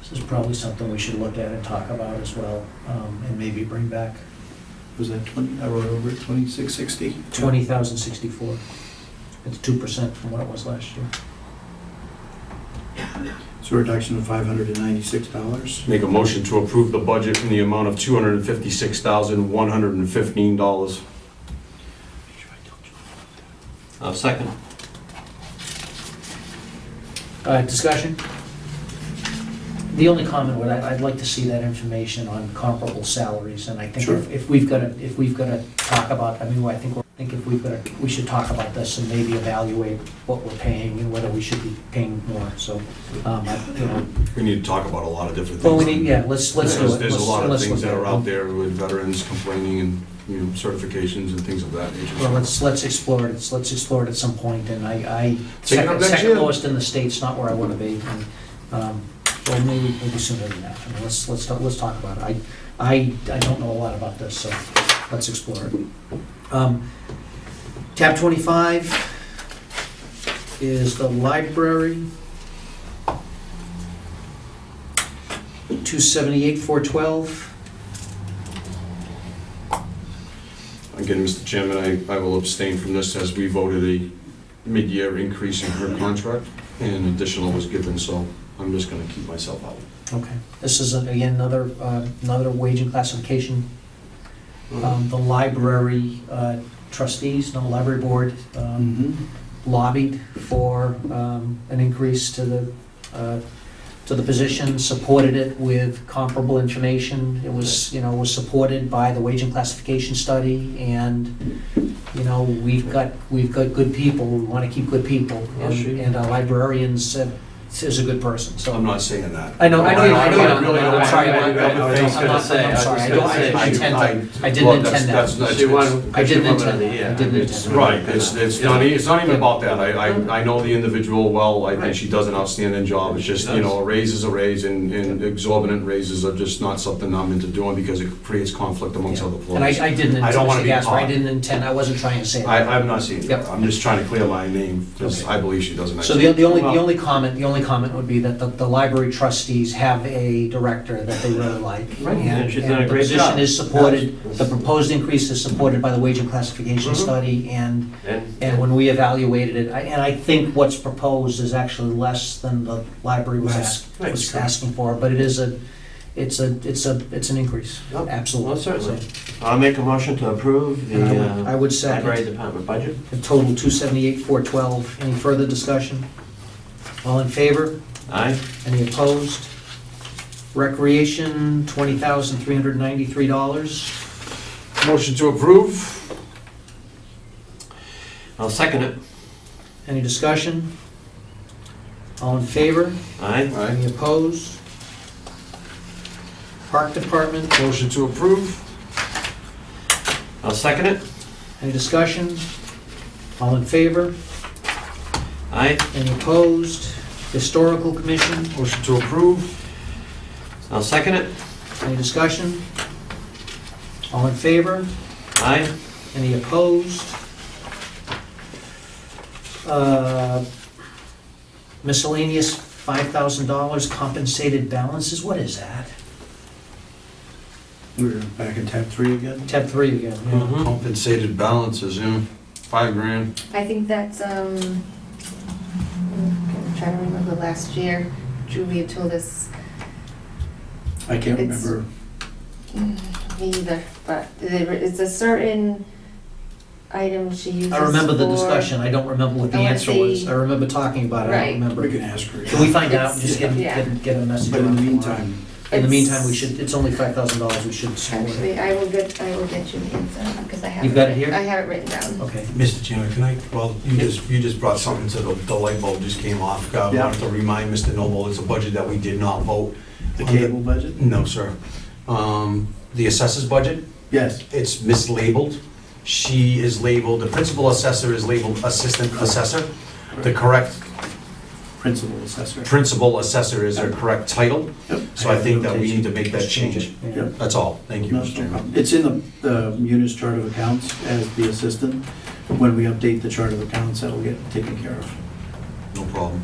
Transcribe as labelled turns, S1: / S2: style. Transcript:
S1: This is probably something we should look at and talk about as well, um, and maybe bring back
S2: Was that 20, I wrote over it, 2660?
S1: twenty thousand sixty-four. It's two percent from what it was last year.
S2: So a reduction of $596.
S3: Make a motion to approve the budget in the amount of $256,115.
S4: I'll second.
S1: Uh, discussion? The only comment would, I- I'd like to see that information on comparable salaries, and I think if-
S2: Sure.
S1: if we've got to, if we've got to talk about, I mean, I think, we're- I think if we've got to, we should talk about this and maybe evaluate what we're paying and whether we should be paying more, so, um, I, you know.
S3: We need to talk about a lot of different
S1: Well,
S3: things.
S1: we need, yeah, let's, let's do
S3: Because
S1: it.
S3: There's a
S1: Let's-
S3: lot of
S1: let's
S3: things
S1: look
S3: that
S1: at
S3: are
S1: it.
S3: out there with veterans complaining and, you know, certifications and things of that nature.
S1: Well, let's, let's explore it, Let's- let's explore it at some point, and I, I,
S3: Take it up
S1: second
S3: next
S1: second
S3: year.
S1: lowest in the state's not where I want to be, and, um, well, maybe, maybe sooner than that, I mean, let's, let's, talk- let's talk about it. I, I, I don't know a lot about this, so let's explore it. Um, Tab twenty-five is the library. Two seventy-eight, four twelve,
S3: Again, Mr. Chairman, I, I will abstain from this as we voted a mid-year increase in her contract and additional was given, so I'm just gonna keep myself out.
S1: okay. This is, again, another, uh, another wage and classification
S5: Mm-hmm.
S1: um, the library uh, trustees, no, library board um,
S2: Mhm.
S1: lobbied for um, an increase to the, uh, to the position, supported it with comparable information. It was, you know, was supported by the wage and classification study, and, you know, we've got, we've got good people, we want to keep good people.
S4: Yes,
S1: and-
S4: sure.
S1: And our librarians uh, is a good person, so.
S3: I'm not saying that.
S1: I know, I know, I know,
S3: I really don't
S1: I'm sorry,
S3: want to-
S4: I- I- I was
S1: I'm not-
S4: gonna
S1: I'm sorry,
S4: say,
S1: I
S4: I
S1: don't,
S4: was
S1: I
S4: gonna
S1: I
S4: say,
S1: tend to, I didn't
S3: Well,
S1: intend
S3: that's-
S1: that.
S3: that's- that's-
S4: She won-
S1: I
S4: she
S1: didn't
S4: won
S1: intend
S4: the-
S1: that. I
S4: yeah,
S1: didn't
S4: it's-
S1: intend that.
S3: Right, it's, it's not, e- it's not even about that, I, I, I know the individual well, I think
S4: Right.
S3: she does an outstanding job, it's just, you know, a raise is a raise, and, and exorbitant raises are just not something I'm into doing because it creates conflict amongst other
S1: And I,
S3: employees.
S1: I didn't,
S3: I don't wanna
S1: intend-
S3: be
S1: yes, I
S3: caught.
S1: didn't intend, I wasn't trying to say
S3: I,
S1: that.
S3: I'm not saying that,
S1: Yep.
S3: I'm just trying to clear my name, because
S1: Okay.
S3: I believe she does an
S1: So the,
S3: excellent.
S1: the only, the
S4: Well-
S1: only comment, the only comment would be that the, the library trustees have a director that they really like.
S4: Right, and she's done a
S1: the
S4: great
S1: position
S4: job.
S1: is supported, the proposed increase is supported by the wage and classification
S4: Mm-hmm.
S1: study, and,
S4: And
S1: and when we evaluated it, I- and I think what's proposed is actually less than the library was, ask-
S4: Right,
S1: was
S4: sure.
S1: asking for, but it is a, it's a, it's a, it's an increase,
S4: Yep.
S1: absolutely.
S4: well, certainly. I'll make a motion to approve
S1: And I
S4: the
S1: would- I
S4: uh,
S1: would second.
S4: library department budget.
S1: A total 278, 412. Any further discussion? All in favor?
S4: Aye.
S1: Any opposed? Recreation, $20,393.
S3: Motion to approve?
S4: I'll second it.
S1: Any discussion? All in favor?
S4: Aye.
S3: Aye.
S1: Any opposed? Park Department,
S3: Motion to approve?
S4: I'll second it.
S1: any discussion? All in favor?
S4: Aye.
S1: Any opposed? Historical Commission,
S3: Motion to approve?
S4: I'll second it.
S1: any discussion? All in favor?
S4: Aye.
S1: Any opposed? Uh, Miscellaneous $5,000 compensated balances, what is that?
S2: We're back in tab three again.
S1: Tab 3 again. yeah.
S4: Mhm.
S3: Compensated balances, yeah, five grand.
S6: I think that's, um, I'm trying to remember last year, Julia told us,
S2: I can't
S6: It's-
S2: remember.
S6: mm, me either, but there- it's a certain item she uses
S1: I remember the
S6: for-
S1: discussion, I don't remember what the
S6: I wanna
S1: answer was.
S6: see-
S1: I remember talking about it, I
S6: Right.
S1: don't remember.
S2: We can ask her.
S1: Can we find out, and just get,
S6: Yeah.
S1: get get a message?
S2: But in the
S1: out?
S2: meantime,
S1: In the
S6: It's-
S1: meantime, we should, it's only $5,000, we should support it.
S6: Actually, I will get, I will get you the answer, because I have.
S1: You've got it here?
S6: I have it written down.
S1: Okay.
S5: Mr. Chairman, can I, well, you just, you just brought something to the, the light bulb just came off. I
S2: Yeah.
S5: wanted to remind Mr. Noble, it's a budget that we did not vote.
S2: the
S5: on the-
S2: cable budget?
S5: No, sir. Um, The assessor's budget,
S2: Yes.
S5: it's mislabeled. She is labeled, the principal assessor is labeled assistant assessor. The correct
S2: Principal assessor.
S5: principal assessor is her correct title.
S2: Yep.
S5: So I think that we need to make that change.
S1: Yeah.
S2: Yep.
S5: That's all. Thank you,
S2: No,
S5: Mr. Chairman.
S2: It's in the uh, munis chart of accounts as the assistant. When we update the chart of accounts, that'll get taken care of.
S5: No problem.